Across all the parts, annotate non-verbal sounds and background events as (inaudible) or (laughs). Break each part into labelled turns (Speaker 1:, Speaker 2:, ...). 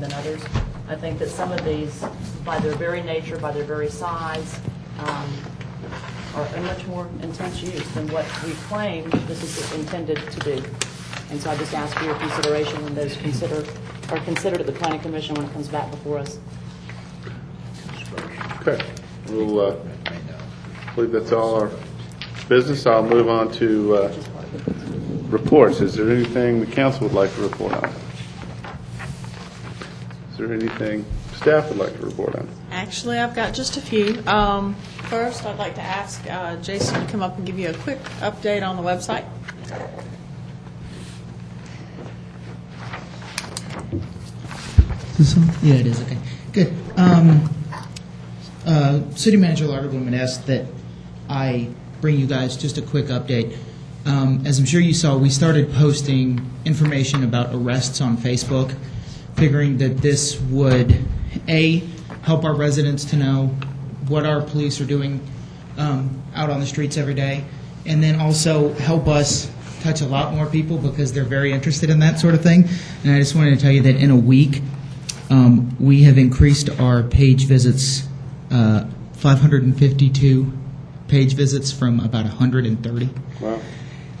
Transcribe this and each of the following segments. Speaker 1: than others. I think that some of these, by their very nature, by their very size, um, are in much more intense use than what we claim this is intended to do. And so I just ask for your consideration when those consider, are considered at the planning commission when it comes back before us.
Speaker 2: Okay, we'll, uh, believe that's all our business. I'll move on to uh, reports. Is there anything the council would like to report on? Is there anything staff would like to report on?
Speaker 3: Actually, I've got just a few. Um, First, I'd like to ask uh, Jason to come up and give you a quick update on the website.
Speaker 4: This one? Yeah, it is, okay. Good. Um, uh, City Manager Larderblum had asked that I bring you guys just a quick update. Um, As I'm sure you saw, we started posting information about arrests on Facebook, figuring that this would, A, help our residents to know what our police are doing um, out on the streets every day, and then also help us touch a lot more people because they're very interested in that sort of thing. And I just wanted to tell you that in a week, um, we have increased our page visits, uh, 552 page visits from about 130.
Speaker 2: Wow.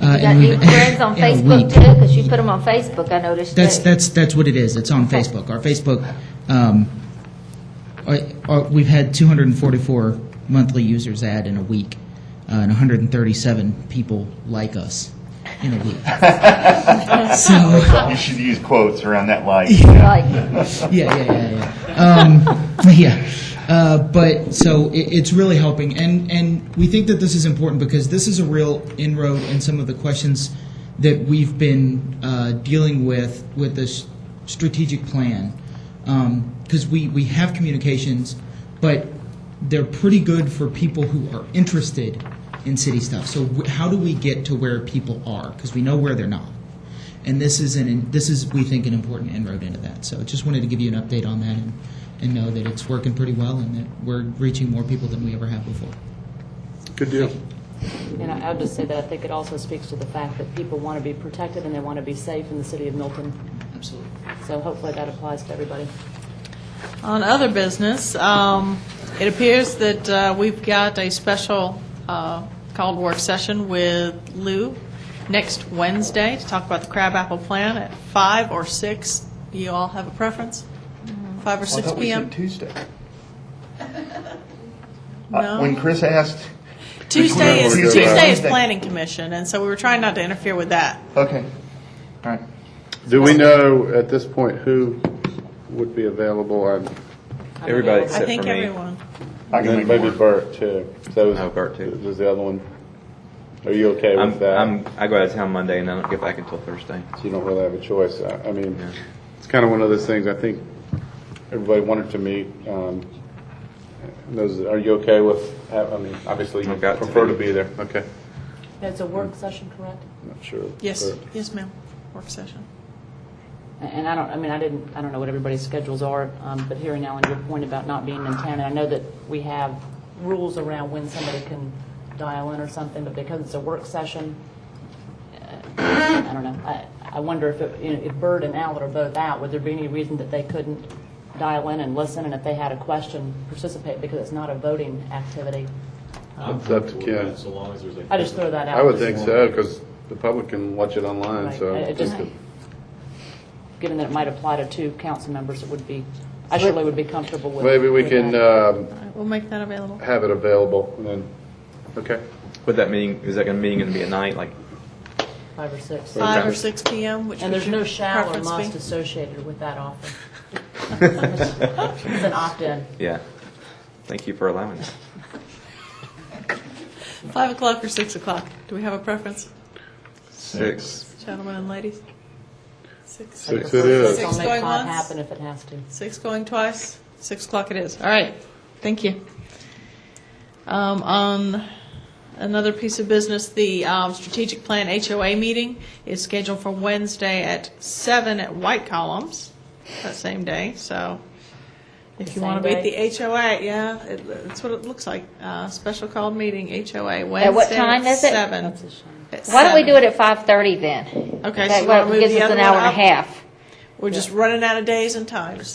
Speaker 4: Uh,
Speaker 5: You
Speaker 4: (laughs)
Speaker 5: got
Speaker 4: and
Speaker 5: new
Speaker 4: we've-
Speaker 5: friends on
Speaker 4: in a
Speaker 5: Facebook
Speaker 4: week.
Speaker 5: too, 'cause you put them on Facebook, I noticed
Speaker 4: That's,
Speaker 5: too.
Speaker 4: that's, that's what it is. It's on Facebook. Our Facebook, um, I- I- we've had 244 monthly users add in a week, uh, and 137 people like us in a week. So,
Speaker 6: You should use quotes around that line.
Speaker 5: Like,
Speaker 4: yeah, yeah, yeah, yeah. Um, (laughs) yeah. Uh, but so it, it's really helping, and and we think that this is important because this is a real inroad in some of the questions that we've been uh, dealing with with this strategic plan, because we we have communications, but they're pretty good for people who are interested in city stuff. So w- how do we get to where people are? Because we know where they're not. And this is an, this is, we think, an important inroad into that. So just wanted to give you an update on that and, and know that it's working pretty well and that we're reaching more people than we ever have before.
Speaker 2: Good deal.
Speaker 1: And I I would just say that I think it also speaks to the fact that people want to be protected and they want to be safe in the city of Milton.
Speaker 4: Absolutely.
Speaker 1: So hopefully that applies to everybody.
Speaker 3: On other business, um, it appears that uh, we've got a special uh, called work session with Lou next Wednesday to talk about the crabapple plan at five or six. You all have a preference? Five or six PM?
Speaker 6: Tuesday.
Speaker 3: No.
Speaker 6: Uh, When Chris asked,
Speaker 3: Tuesday is,
Speaker 6: We're good.
Speaker 3: Tuesday is
Speaker 6: Tuesday.
Speaker 3: planning commission, and so we were trying not to interfere with that.
Speaker 6: okay, all right.
Speaker 2: Do we know at this point who would be available on,
Speaker 7: Everybody
Speaker 3: I
Speaker 7: except
Speaker 3: think
Speaker 7: for me.
Speaker 3: everyone.
Speaker 6: I can
Speaker 2: and
Speaker 6: make
Speaker 2: maybe
Speaker 6: more.
Speaker 2: Bert too? So is-
Speaker 7: Oh, Bert, too.
Speaker 2: Is the other one, are you okay with
Speaker 7: I'm,
Speaker 2: that?
Speaker 7: I'm, I go out of town Monday and I don't get back until Thursday.
Speaker 2: So you don't really have a choice. I, I mean, it's kind of one of those things, I think everybody wanted to meet. Um, those, are you okay with, ha- I mean, obviously you
Speaker 7: I've got to
Speaker 2: prefer to
Speaker 7: be.
Speaker 2: be there. Okay.
Speaker 1: It's a work session, correct?
Speaker 2: Not sure.
Speaker 3: Yes,
Speaker 7: Uh,
Speaker 2: Sure.
Speaker 3: yes, ma'am. Work session.
Speaker 1: And I don't, I mean, I didn't, I don't know what everybody's schedules are, um, but hearing Alan, your point about not being in town, and I know that we have rules around when somebody can dial in or something, but because it's a work session, uh, I don't know, I, I wonder if, it- you know, if Bert and Alan are both out, would there be any reason that they couldn't dial in and listen, and if they had a question, participate, because it's not a voting activity?
Speaker 2: It's up to Ken.
Speaker 8: So long as there's a.
Speaker 1: I just throw that out.
Speaker 2: I would think so, because the public can watch it online,
Speaker 1: Right.
Speaker 2: so.
Speaker 1: It- it just- Given that it might apply to two council members, it would be, I surely would be comfortable with.
Speaker 2: Maybe we
Speaker 1: with
Speaker 2: can,
Speaker 1: that.
Speaker 2: um,
Speaker 3: All right, we'll make that available.
Speaker 2: have it available and then, okay.
Speaker 7: Would that meeting, is that gonna, meeting gonna be at
Speaker 3: (laughs)
Speaker 7: night, like, (laughs)
Speaker 1: Five or six.
Speaker 3: Five or six PM, which
Speaker 1: And
Speaker 3: would
Speaker 1: there's
Speaker 3: your
Speaker 1: no shall or
Speaker 3: preference
Speaker 1: must
Speaker 3: be?
Speaker 1: associated with that offer. It's an opt-in.
Speaker 7: yeah? Thank you for allowing that.
Speaker 3: Five o'clock or six o'clock? Do we have a preference,
Speaker 7: Six.
Speaker 3: gentlemen and ladies? Six,
Speaker 2: Six it is.
Speaker 1: I'll
Speaker 3: Six
Speaker 1: make
Speaker 3: going
Speaker 1: five
Speaker 3: once.
Speaker 1: happen if it has to.
Speaker 3: six going twice, six o'clock it is. All right, thank you. Um, on another piece of business, the, um, strategic plan HOA meeting is scheduled for Wednesday at seven at White Columns, that same day, so if
Speaker 1: The
Speaker 3: you want to
Speaker 1: same
Speaker 3: be at the HOA, yeah, it, that's what it looks like, uh, special called meeting, HOA, Wednesday
Speaker 5: what time is it?
Speaker 3: seven.
Speaker 1: That's a shame.
Speaker 5: Why don't we do it at 5:30 then?
Speaker 3: Okay, so
Speaker 5: That
Speaker 3: you wanna
Speaker 5: way
Speaker 3: move
Speaker 5: it gives
Speaker 3: the
Speaker 5: us
Speaker 3: other
Speaker 5: an
Speaker 3: one
Speaker 5: hour and a
Speaker 3: up?
Speaker 5: half.
Speaker 3: We're just running out of days and times.